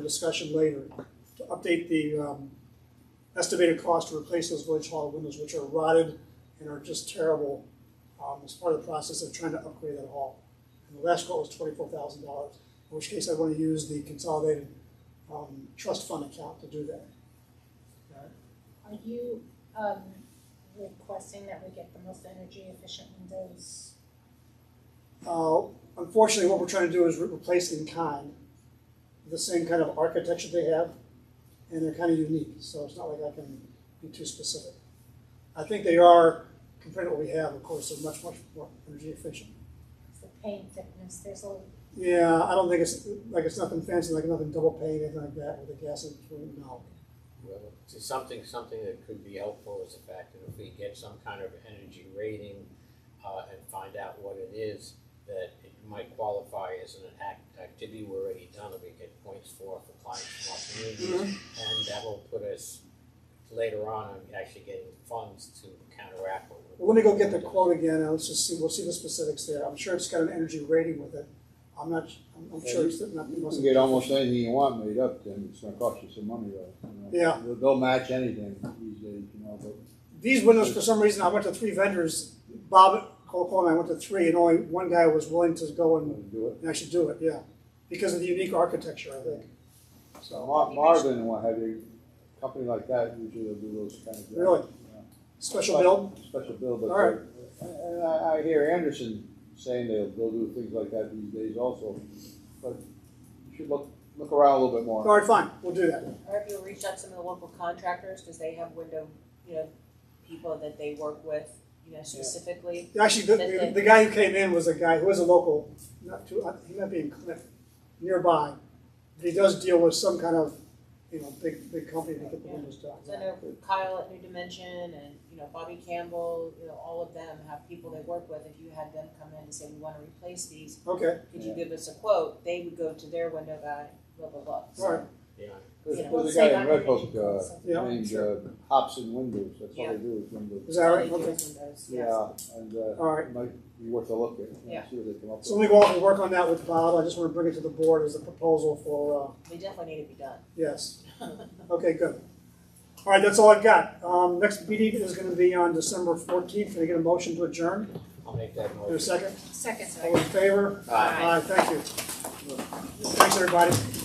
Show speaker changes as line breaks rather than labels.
discussion later, to update the um, estimated cost to replace those village hall windows, which are rotted and are just terrible, um, as part of the process of trying to upgrade that hall. And the last quote was twenty-four thousand dollars, in which case I want to use the consolidated um, trust fund account to do that.
Are you, um, requesting that we get the most energy efficient windows?
Uh, Unfortunately, what we're trying to do is re- replace in kind, the same kind of architecture they have, and they're kind of unique, so it's not like I can be too specific. I think they are, compared to what we have, of course, they're much, much more energy efficient.
The paint thickness, there's a,
Yeah, I don't think it's, like, it's nothing fancy, like nothing double paint, anything like that, with the gas in between, no.
Well, to something, something that could be helpful is the fact that if we get some kind of energy rating, uh, and find out what it is, that it might qualify as an act, activity we're already done, and we get points for, for clients from our
Mm-hmm.
communities. And that will put us later on, in actually getting funds to counteract what we're.
Well, let me go get the quote again, and let's just see, we'll see the specifics there, I'm sure it's got an energy rating with it, I'm not, I'm- I'm sure it's not, it
You can
wasn't.
get almost anything you want made up, Tim, it's gonna cost you some money though. you know.
Yeah.
They'll- They'll match anything these days, you know, but
These windows, for some reason, I went to three vendors. Bob, Coco, and I went to three, and only one guy was willing to go
I'm
and
gonna do it.
and actually do it, yeah. Because of the unique architecture, I think.
So
So,
Mar- Marvin and what have you, company like that usually will do those kind of. jobs.
Really? special build,
Special bill, but.
All right.
they- And I, I hear Anderson saying they'll, they'll do things like that these days also, but you should look, look around a little bit
all
more.
right, fine, we'll do that.
Or if you reach out to some of the local contractors, because they have window, you know, people that they work with, you know, specifically.
Actually, the- the, the guy who came in was a guy who was a local, not too, I- he might be in Cliff, nearby. But he does deal with some kind of, you know, big, big company to get the windows done.
So I know Kyle at New Dimension and, you know, Bobby Campbell, you know, all of them have people they work with. If you had them come in and say, we want to replace these,
Okay,
could you give us a quote? They would go to their window guy, blah, blah, blah. So,
all right,
Yeah,
There's
you know,
there's a
save
guy
on
in Red
energy
Hook, uh,
costs.
Yeah,
named
sure.
uh, Hobson Windows, that's all
Yeah.
they do is windows.
is that all
They
right?
do
Okay.
windows, yes.
Yeah, and, uh,
All right.
it might be worth a look at,
Yeah.
and see what they come up with.
So let me go off and work on that with Bob. I just want to bring it to the board as a proposal for, uh,
They definitely need to be done.
Yes. Okay, good. All right, that's all I've got. Um, next meeting is gonna be on December fourteenth. Can I get a motion to adjourn?
I'll make that
There's a
motion.
second?
second,
All in favor?
Aye.
Aye, thank you. Thanks, everybody.